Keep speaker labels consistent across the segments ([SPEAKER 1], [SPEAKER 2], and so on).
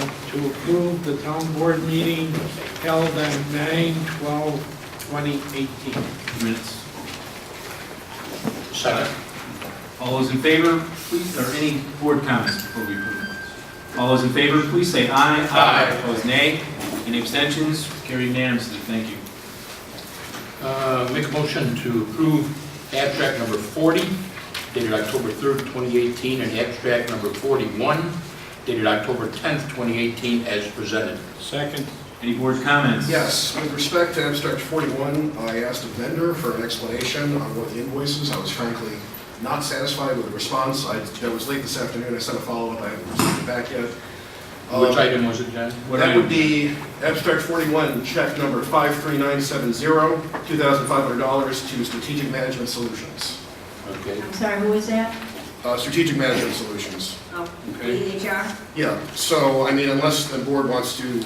[SPEAKER 1] to approve the town board meeting held on 9/12/2018.
[SPEAKER 2] Minutes.
[SPEAKER 3] Second.
[SPEAKER 2] All those in favor, please, or any board comments before we approve minutes? All those in favor, please say aye.
[SPEAKER 3] Aye.
[SPEAKER 2] Opposed, nay. Any abstentions? Carried unanimously, thank you.
[SPEAKER 3] Uh, Make a motion to approve abstract number 40 dated October 3rd, 2018, and abstract number 41 dated October 10th, 2018, as presented.
[SPEAKER 1] Second.
[SPEAKER 2] Any board comments?
[SPEAKER 4] Yes, with respect to abstract 41, I asked a vendor for an explanation on one of the invoices. I was frankly not satisfied with the response. I, that was late this afternoon, I sent a follow-up, I haven't received it back yet.
[SPEAKER 3] Which
[SPEAKER 4] Um,
[SPEAKER 3] item was it, John?
[SPEAKER 2] What
[SPEAKER 4] That
[SPEAKER 2] item?
[SPEAKER 4] would be abstract 41, check number 53970, $2,500 to Strategic Management Solutions.
[SPEAKER 3] Okay.
[SPEAKER 5] I'm sorry, who is that?
[SPEAKER 4] Uh, Strategic Management Solutions.
[SPEAKER 5] Oh,
[SPEAKER 2] Okay.
[SPEAKER 5] EHR?
[SPEAKER 4] Yeah, so, I mean, unless the board wants to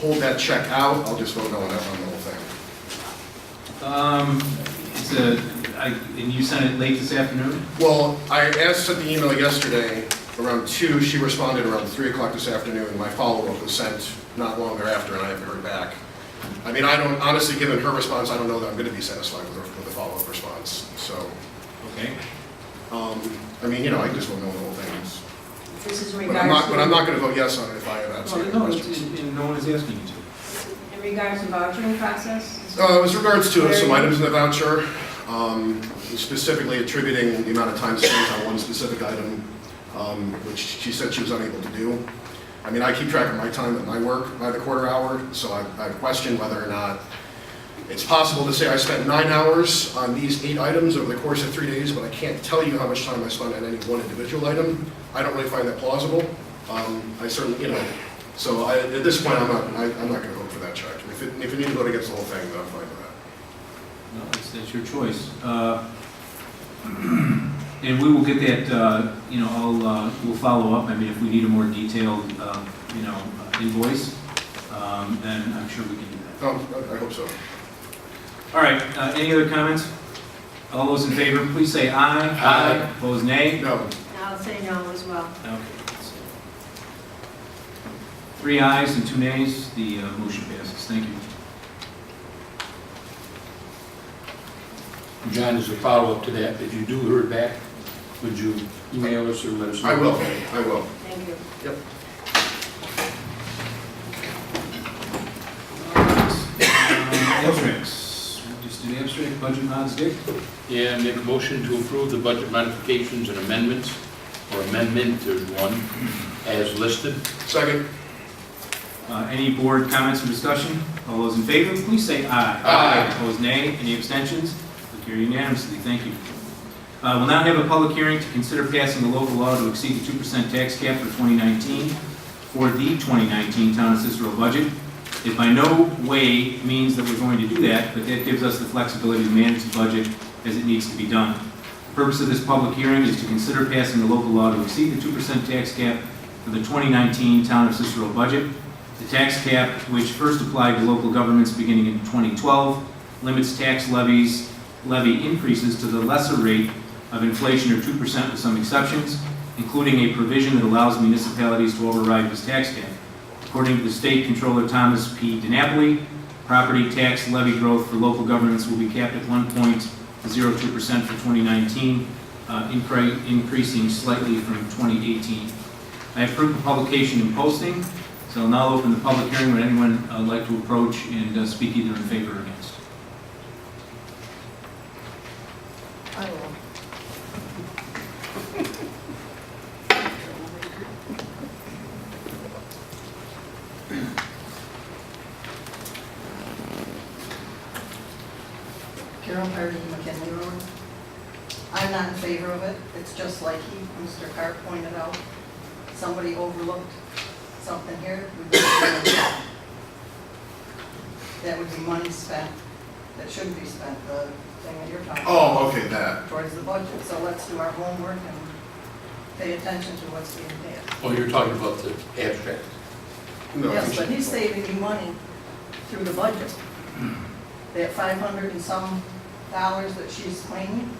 [SPEAKER 4] hold that check out, I'll just vote no on that, on the whole thing.
[SPEAKER 2] Um, it's a, I, and you sent it late this afternoon?
[SPEAKER 4] Well, I asked at the email yesterday around two, she responded around three o'clock this afternoon. My follow-up was sent not long thereafter, and I haven't heard back. I mean, I don't, honestly, given her response, I don't know that I'm gonna be satisfied with her, with the follow-up response, so,
[SPEAKER 2] Okay.
[SPEAKER 4] um, I mean, you know, I just won't know the whole thing.
[SPEAKER 5] This is in
[SPEAKER 4] But I'm not,
[SPEAKER 5] regards
[SPEAKER 4] but I'm
[SPEAKER 5] to,
[SPEAKER 4] not gonna vote yes on it if I have absolutely
[SPEAKER 2] Well, Oh, no, it's-
[SPEAKER 4] questions.
[SPEAKER 2] and no one is asking you to.
[SPEAKER 5] in regards to vouchering process?
[SPEAKER 4] Uh, as regards to some items in the voucher, um, specifically attributing the amount of time spent on one specific item, um, which she said she was unable to do. I mean, I keep track of my time at my work by the quarter hour, so I, I question whether or not it's possible to say I spent nine hours on these eight items over the course of three days, but I can't tell you how much time I spent on any one individual item. I don't really find that plausible. Um, I certainly, you know, so I, at this point, I'm not, I, I'm not gonna vote for that charge. If it, if you need to vote against the whole thing, then I'm fine with that.
[SPEAKER 2] No, it's, that's your choice. Uh, And we will get that, uh, you know, I'll, uh, we'll follow up, I mean, if we need a more detailed, uh, you know, invoice, um, then I'm sure we can do that.
[SPEAKER 4] Um, I I hope so.
[SPEAKER 2] All right, uh, any other comments? All those in favor, please say aye.
[SPEAKER 3] Aye.
[SPEAKER 2] Opposed, nay?
[SPEAKER 4] No,
[SPEAKER 5] I'll say no as well.
[SPEAKER 2] Okay. Three ayes and two nays, the uh, motion passes, thank you.
[SPEAKER 3] John, as a follow-up to that, if you do hear back, would you email us or let us know?
[SPEAKER 4] I will, I will.
[SPEAKER 5] Thank you.
[SPEAKER 2] Uh, Abstracts, We'll just do abstract, budget mods, Dick?
[SPEAKER 3] Yeah, make a motion to approve the budget modifications and amendments, or amendment, there's one, as listed.
[SPEAKER 4] Second,
[SPEAKER 2] Uh, Any board comments or discussion? All those in favor, please say aye.
[SPEAKER 3] Aye.
[SPEAKER 2] Opposed, nay. Any abstentions? We carry unanimously. Thank you. Uh, We'll now have a public hearing to consider passing a local law to exceed the 2% tax cap for 2019 for the 2019 Town of Cicero budget. It by no way means that we're going to do that, but that gives us the flexibility to manage the budget as it needs to be done. The Purpose of this public hearing is to consider passing a local law to exceed the 2% tax cap for the 2019 Town of Cicero budget. The tax cap, which first applied to local governments beginning in 2012, limits tax levies, levy increases to the lesser rate of inflation or 2% with some exceptions, including a provision that allows municipalities to override this tax cap. According to the State Controller Thomas P. DiNapoli, property tax levy growth for local governments will be capped at 1.02% for 2019, uh, incre- increasing slightly from 2018. I have proof of publication and posting, so I'll now open the public hearing. Would anyone uh, like to approach and uh, speak either in favor or against?
[SPEAKER 6] I will. Carol Hardy McKinley Road. I'm not in favor of it. It's just like he, Mr. Carr pointed out. Somebody overlooked something here. We don't know. That would be money spent, that shouldn't be spent, the thing that you're talking about
[SPEAKER 4] oh, okay, that.
[SPEAKER 6] towards the budget, so let's do our homework and pay attention to what's being paid.
[SPEAKER 3] Oh, you're talking about the abstract.
[SPEAKER 4] No,
[SPEAKER 6] Yes, but he's saving you money through the budget. That five hundred and some dollars that she's claiming,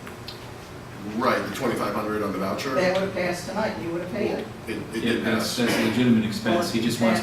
[SPEAKER 4] Right, the 2,500 on the voucher.
[SPEAKER 6] that would have passed tonight, you would have paid it.
[SPEAKER 4] It, it
[SPEAKER 2] Yeah,
[SPEAKER 4] did
[SPEAKER 2] that's
[SPEAKER 4] pass.
[SPEAKER 2] that's a legitimate expense. He just wants